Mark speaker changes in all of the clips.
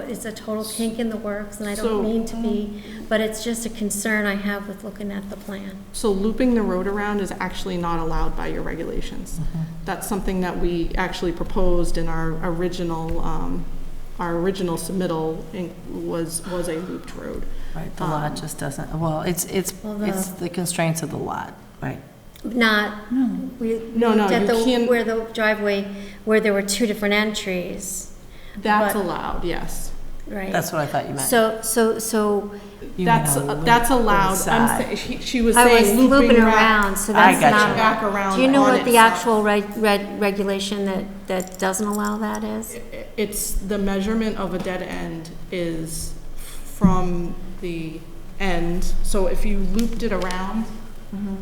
Speaker 1: it's a total kink in the works, and I
Speaker 2: So-
Speaker 1: don't mean to be, but it's just a concern I have with looking at the plan.
Speaker 2: So looping the road around is actually not allowed by your regulations. That's something that we actually proposed in our original, um, our original submittal in- was, was a looped road.
Speaker 3: Right, the lot just doesn't, well, it's, it's,
Speaker 1: Um, Well, the-
Speaker 3: it's the constraints of the lot, right?
Speaker 1: Not, we
Speaker 2: No, no,
Speaker 1: looked at
Speaker 2: you
Speaker 1: the,
Speaker 2: can't-
Speaker 1: where the driveway, where there were two different entries,
Speaker 2: That's
Speaker 1: But-
Speaker 2: allowed, yes.
Speaker 1: right?
Speaker 3: That's what I thought you meant.
Speaker 1: So, so, so
Speaker 3: You
Speaker 2: That's,
Speaker 3: mean a loop
Speaker 2: that's allowed. I'm
Speaker 3: inside.
Speaker 2: saying, she- she was
Speaker 1: I was
Speaker 2: saying
Speaker 1: looping
Speaker 2: looping
Speaker 1: around,
Speaker 2: around.
Speaker 1: so
Speaker 3: I
Speaker 1: that's
Speaker 3: gotcha.
Speaker 1: not.
Speaker 2: Back around
Speaker 1: Do you know
Speaker 2: on
Speaker 1: what the
Speaker 2: itself.
Speaker 1: actual reg, reg, regulation that, that doesn't allow that is?
Speaker 2: It's, the measurement of a dead end is from the end, so if you looped it around,
Speaker 3: Mm-hmm.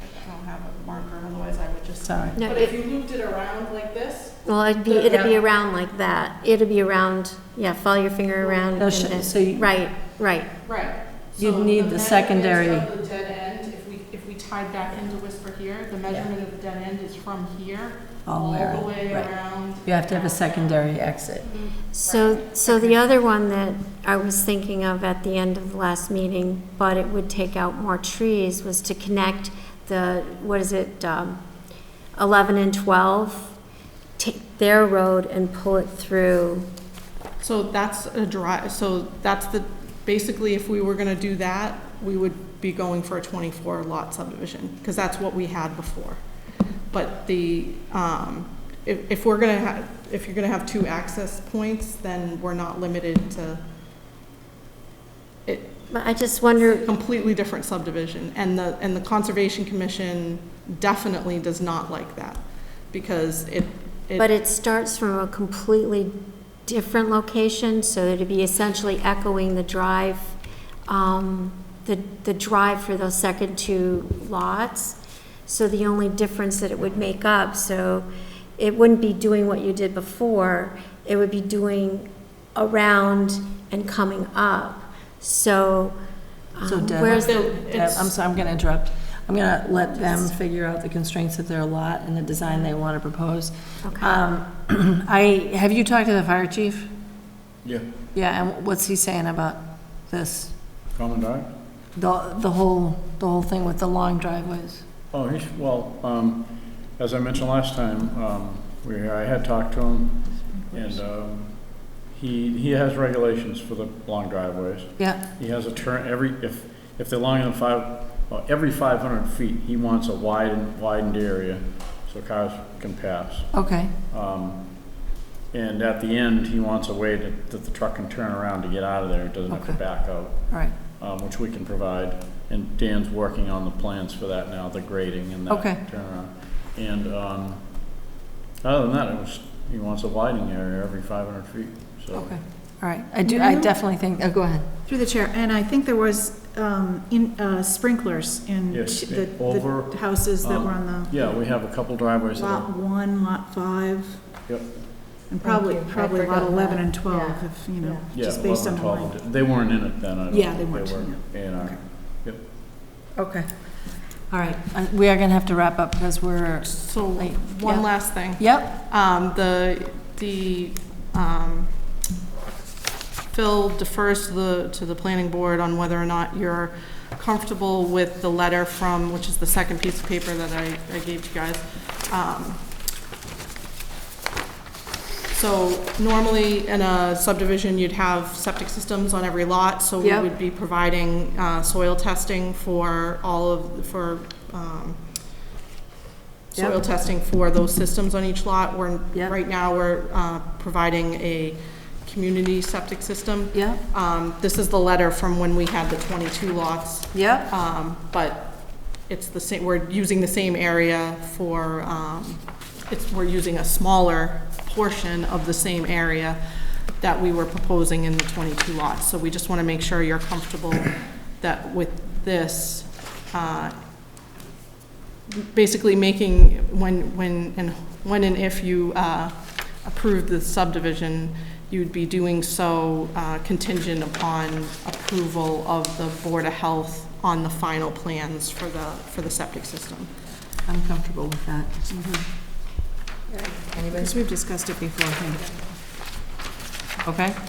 Speaker 2: I don't have a marker, otherwise I would just.
Speaker 3: Sorry.
Speaker 1: No,
Speaker 2: But if
Speaker 1: it-
Speaker 2: you looped it around like this,
Speaker 1: Well, it'd be, it'd be around like that. It'd be around, yeah, follow your finger around.
Speaker 3: No,
Speaker 1: and
Speaker 3: sh-
Speaker 1: then-
Speaker 3: so you-
Speaker 1: Right, right.
Speaker 2: right.
Speaker 3: You'd
Speaker 2: So
Speaker 3: need the
Speaker 2: measurements
Speaker 3: secondary-
Speaker 2: of the dead end, if we, if we tied back into Whisper here, the measurement of the dead end is from here,
Speaker 3: All
Speaker 2: all the
Speaker 3: around,
Speaker 2: way
Speaker 3: right.
Speaker 2: around.
Speaker 3: You have to have a secondary exit.
Speaker 1: So, so the other one that I was thinking of at the end of the last meeting, but it would take out more trees, was to connect the, what is it, um, 11 and 12, take their road and pull it through.
Speaker 2: So that's a dri, so that's the, basically, if we were gonna do that, we would be going for a twenty-four lot subdivision, because that's what we had before. But the, um, if, if we're gonna have, if you're gonna have two access points, then we're not limited to it,
Speaker 1: But I just wonder,
Speaker 2: completely different subdivision, and the, and the Conservation Commission definitely does not like that, because it, it.
Speaker 1: but it starts from a completely different location, so it'd be essentially echoing the drive, um, the, the drive for those second two lots. So the only difference that it would make up, so it wouldn't be doing what you did before, it would be doing around and coming up. So,
Speaker 3: So
Speaker 1: um,
Speaker 3: Deb-
Speaker 1: where's,
Speaker 2: So
Speaker 3: Yeah,
Speaker 2: it's-
Speaker 3: I'm sorry, I'm going to interrupt. I'm going to let them figure out the constraints of their lot and the design they want to propose.
Speaker 1: okay.
Speaker 3: Um, I, have you talked to the fire chief?
Speaker 4: Yeah,
Speaker 3: Yeah, and what's he saying about this?
Speaker 4: commandant?
Speaker 3: The, the whole, the whole thing with the long driveways?
Speaker 4: Oh, he's, well, um, as I mentioned last time, um, we, I had talked to him, and, um, he, he has regulations for the long driveways.
Speaker 3: Yeah,
Speaker 4: He has a turn, every, if, if they're longer than five, well, every five hundred feet, he wants a widened, widened area so cars can pass.
Speaker 3: okay,
Speaker 4: Um, and at the end, he wants a way that, that the truck can turn around to get out of there, it doesn't have to
Speaker 3: Okay.
Speaker 4: back out.
Speaker 3: all right,
Speaker 4: um, which we can provide. And Dan's working on the plans for that now, the grading and that
Speaker 3: Okay.
Speaker 4: turnaround. And, um, other than that, it was, he wants a widening area every five hundred feet, so.
Speaker 3: okay, all right. I do, I definitely think, oh, go ahead.
Speaker 5: Through the chair, and I think there was um, in- uh, sprinklers in
Speaker 4: Yes,
Speaker 5: ch- the
Speaker 4: over,
Speaker 5: the houses that were
Speaker 4: um,
Speaker 5: on
Speaker 4: Yeah, we have a couple
Speaker 5: the
Speaker 4: driveways that
Speaker 5: lot
Speaker 4: are,
Speaker 5: one, lot five,
Speaker 4: yep,
Speaker 5: and probably,
Speaker 3: you. I
Speaker 5: probably lot
Speaker 3: forgot
Speaker 5: 11
Speaker 3: that.
Speaker 5: and 12, if, you know,
Speaker 4: yeah,
Speaker 5: just based
Speaker 4: eleven,
Speaker 5: on the line.
Speaker 4: twelve. They weren't in it then, I don't
Speaker 5: Yeah, they
Speaker 4: think
Speaker 5: weren't,
Speaker 4: were A and R.
Speaker 5: Okay.
Speaker 4: Yep.
Speaker 3: Okay. All right, Uh, we are going to have to wrap up because we're,
Speaker 2: So,
Speaker 3: Like, yeah.
Speaker 2: one last thing.
Speaker 3: yep,
Speaker 2: Um, the, the, um, Phil defers to the, to the planning board on whether or not you're comfortable with the letter from, which is the second piece of paper that I, I gave you guys. Um, So normally in a subdivision, you'd have septic systems on every lot, so we
Speaker 3: Yep.
Speaker 2: would be providing, uh, soil testing for all of, for, um,
Speaker 3: Yep.
Speaker 2: soil testing for those systems on each lot. We're,
Speaker 3: Yep.
Speaker 2: right now, we're uh, providing a community septic system.
Speaker 3: yep,
Speaker 2: Um, This is the letter from when we had the 22 lots,
Speaker 3: yep,
Speaker 2: um, but it's the same, we're using the same area for, um, it's, we're using a smaller portion of the same area that we were proposing in the 22 lots. So we just want to make sure you're comfortable that with this, uh, basically making, when, when, and when and if you uh, approve the subdivision, you'd be doing so uh, contingent upon approval of the Board of Health on the final plans for the, for the septic system.
Speaker 3: I'm comfortable with that.
Speaker 5: Because we've discussed it before, I think.
Speaker 3: okay?